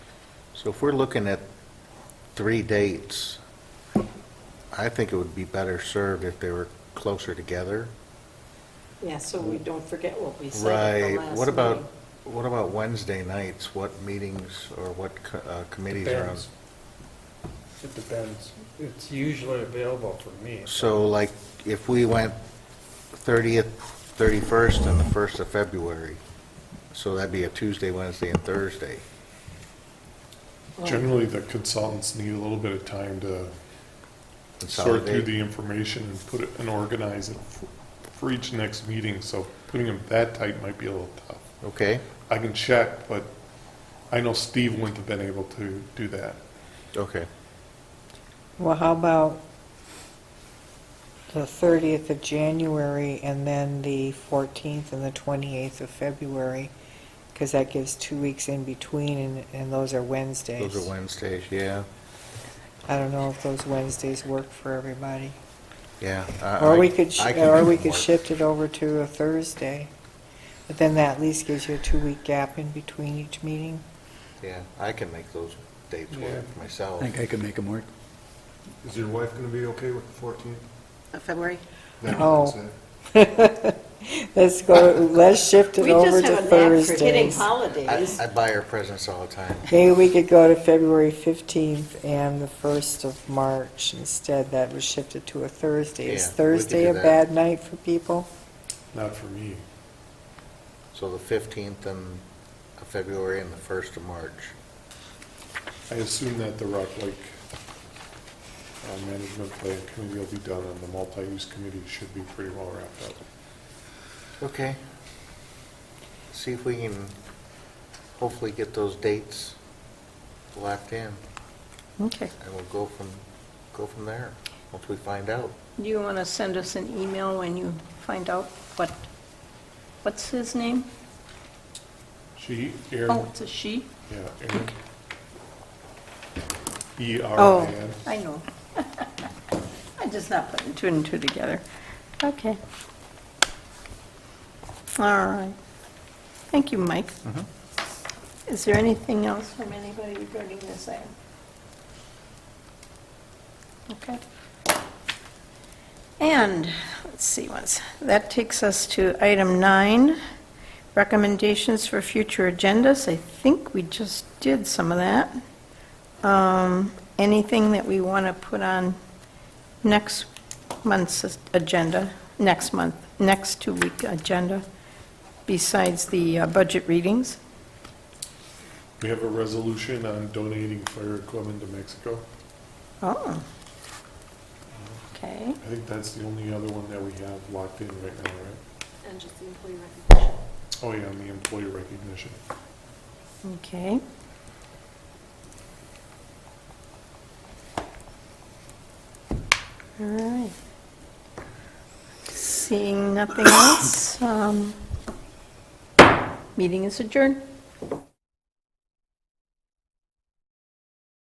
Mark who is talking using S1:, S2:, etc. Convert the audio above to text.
S1: So if we're looking at three dates, I think it would be better served if they were closer together.
S2: Yeah, so we don't forget what we said at the
S1: Right.
S2: last meeting.
S1: What about, what about Wednesday nights? What meetings or what co- uh, committees are on?
S3: Depends. It depends. It's usually available for me.
S1: So like, if we went 30th, 31st, and the 1st of February, so that'd be a Tuesday, Wednesday, and Thursday.
S2: Well,
S4: Generally, the consultants need a little bit of time to sort through
S1: Consolidate.
S4: the information and put it, and organize it f- for each next meeting, so putting them that tight might be a little tough.
S1: Okay?
S4: I can check, but I know Steve wouldn't have been able to do that.
S1: Okay.
S5: Well, how about the 30th of January and then the 14th and the 28th of February? Because that gives two weeks in between, and, and those are Wednesdays.
S1: Those are Wednesdays, yeah,
S5: I don't know if those Wednesdays work for everybody.
S1: yeah. I-
S5: Or
S1: I-
S5: we could, sh-
S1: I can
S5: or
S1: make
S5: we
S1: them
S5: could
S1: work.
S5: shift it over to a Thursday, but then that at least gives you a two-week gap in between each meeting.
S1: Yeah, I can make those dates work
S3: Yeah.
S6: I
S1: myself.
S6: think I could make them work.
S7: Is your wife going to be okay with the 14th?
S2: Of February?
S7: That
S5: Oh.
S7: Wednesday?
S5: Let's go, let's shift it
S2: We
S5: over
S2: just
S5: to
S2: have a knack for hitting
S5: Thursdays.
S1: I
S2: holidays.
S1: I buy her presents all the time.
S5: Maybe we could go to February 15th and the 1st of March instead, that was shifted to a Thursday.
S1: Yeah,
S5: Is
S1: we could
S5: Thursday
S1: do
S5: a
S1: that.
S5: bad night for people?
S4: Not for me.
S1: So the 15th and of February and the 1st of March.
S4: I assume that the Rock Lake uh, Management Plan Committee will be done, and the multi-use committee should be pretty well wrapped up.
S1: Okay. See if we can hopefully get those dates locked in,
S8: Okay.
S1: and we'll go from, go from there, once we find out.
S8: Do you want to send us an email when you find out what, what's his name?
S4: She,
S8: Oh,
S4: Aaron,
S8: it's a she?
S4: yeah, Aaron. E R I N.
S8: I know. I'm just not putting two and two together. Okay. All right. Thank you, Mike. Is there anything else from anybody regarding this item? Okay. And, let's see, once, that takes us to item nine, recommendations for future agendas. I think we just did some of that. Um, Anything that we want to put on next month's agenda, next month, next two-week agenda, besides the uh, budget readings?
S4: We have a resolution on donating fire equipment to Mexico.
S8: Oh. Okay.
S4: I think that's the only other one that we have locked in right now, right?
S2: And just the employee recognition.
S4: Oh, yeah, on the employee recognition.
S8: Okay. All right. Seeing nothing else, um, meeting is adjourned.